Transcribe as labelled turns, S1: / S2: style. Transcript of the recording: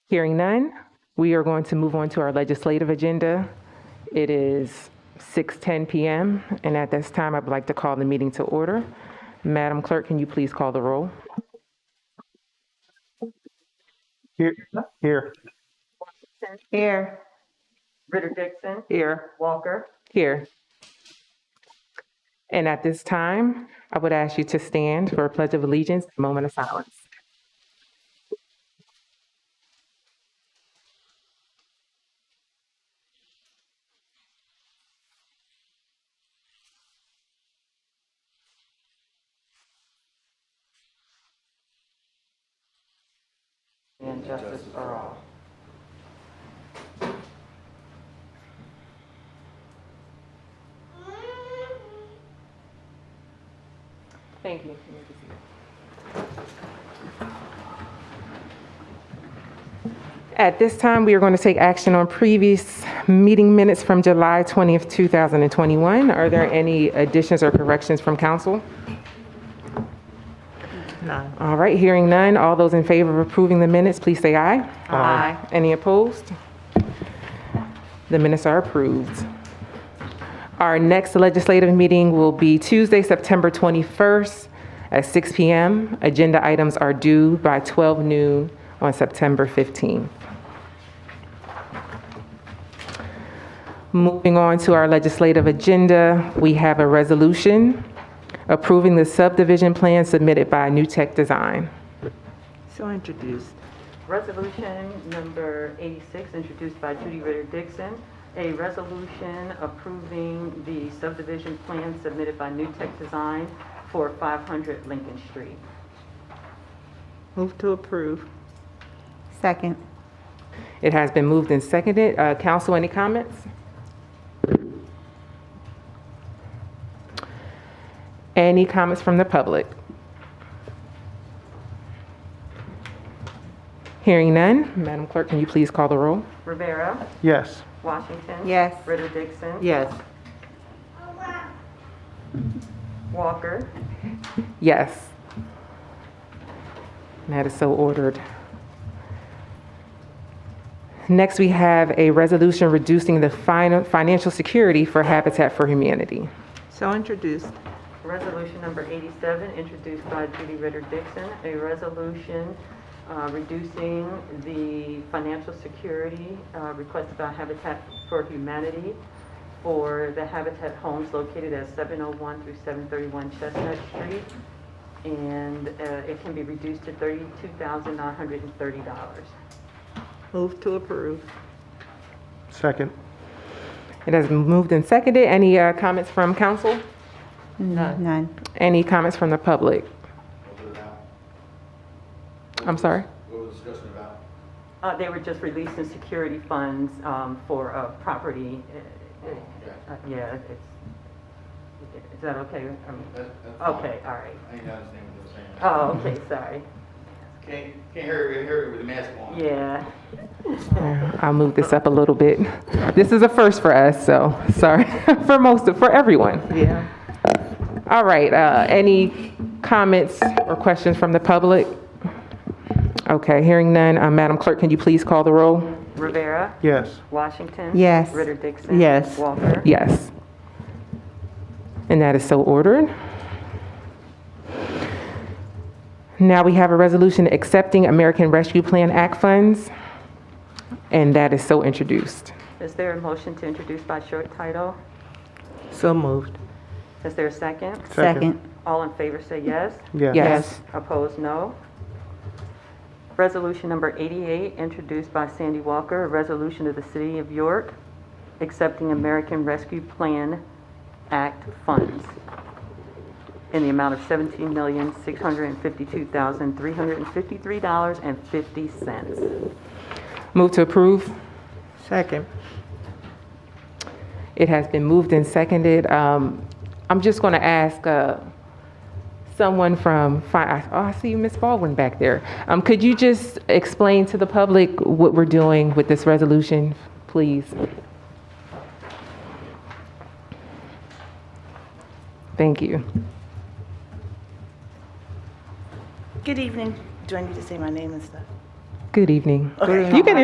S1: Hearing none, we are going to move on to our legislative agenda. It is 6:10 PM, and at this time, I'd like to call the meeting to order. Madam Clerk, can you please call the roll?
S2: Here, here.
S3: Here.
S4: Ritter Dixon,
S2: Here.
S4: Walker,
S1: Here. And at this time, I would ask you to stand for a pledge of allegiance, a moment of silence.
S4: and Justice for all.
S1: Thank you. At this time, we are going to take action on previous meeting minutes from July 20th, 2021. Are there any additions or corrections from council? None. All right, hearing none. All those in favor of approving the minutes, please say aye. Aye. Any opposed? The minutes are approved. Our next legislative meeting will be Tuesday, September 21st at 6 PM. Agenda items are due by 12 noon on September 15th. Moving on to our legislative agenda, we have a resolution approving the subdivision plan submitted by New Tech Design.
S3: So introduced.
S4: Resolution number 86, introduced by Judy Ritter Dixon, a resolution approving the subdivision plan submitted by New Tech Design for 500 Lincoln Street.
S3: Move to approve. Second.
S1: It has been moved and seconded. Uh, Council, any comments? Any comments from the public? Hearing none, Madam Clerk, can you please call the roll?
S4: Rivera,
S2: Yes.
S4: Washington.
S3: Yes.
S4: Ritter Dixon.
S3: Yes.
S4: Walker,
S1: Yes. That is so ordered. Next, we have a resolution reducing the fin- financial security for Habitat for Humanity.
S3: So introduced.
S4: Resolution number 87, introduced by Judy Ritter Dixon, a resolution uh, reducing the financial security uh, requested by Habitat for Humanity for the Habitat homes located at 701 through 731 Chestnut Street, and uh, it can be reduced to $32,930.
S3: Move to approve.
S2: Second.
S1: It has been moved and seconded. Any uh, comments from council?
S3: None. Mm, None.
S1: Any comments from the public?
S5: What was it about?
S1: I'm sorry.
S5: What was the discussion about?
S4: Uh, They were just releasing security funds um, for a property.
S5: Oh,
S4: uh, uh, uh, Yeah, it's, is that okay? Um,
S5: That- that's fine.
S4: Okay, all right.
S5: I didn't understand what they were saying.
S4: Oh, okay, sorry.
S5: Can't, can't hear, you- hear you with the mask on.
S4: Yeah.
S1: I'll move this up a little bit. This is a first for us, so sorry for most of, for everyone.
S3: Yeah.
S1: All right. Uh, any comments or questions from the public? Okay, hearing none. Uh, Madam Clerk, can you please call the roll?
S4: Rivera,
S2: Yes.
S4: Washington.
S3: Yes.
S4: Ritter Dixon.
S3: Yes.
S4: Walker.
S1: Yes. And that is so ordered. Now we have a resolution accepting American Rescue Plan Act funds, and that is so introduced.
S4: Is there a motion to introduce by short title?
S3: So moved.
S4: Is there a second?
S2: Second.
S4: All in favor say yes.
S2: Yes.
S1: Yes.
S4: Opposed, no. Resolution number 88, introduced by Sandy Walker, a resolution of the City of York accepting American Rescue Plan Act funds in the amount of $17,652,353.50.
S1: Move to approve.
S3: Second.
S1: It has been moved and seconded. Um, I'm just going to ask uh, someone from, fi- I- oh, I see you, Ms. Baldwin back there. Um, Could you just explain to the public what we're doing with this resolution, please? Thank you.
S6: Good evening. Do I need to say my name and stuff?
S1: Good evening.
S3: Good
S1: You can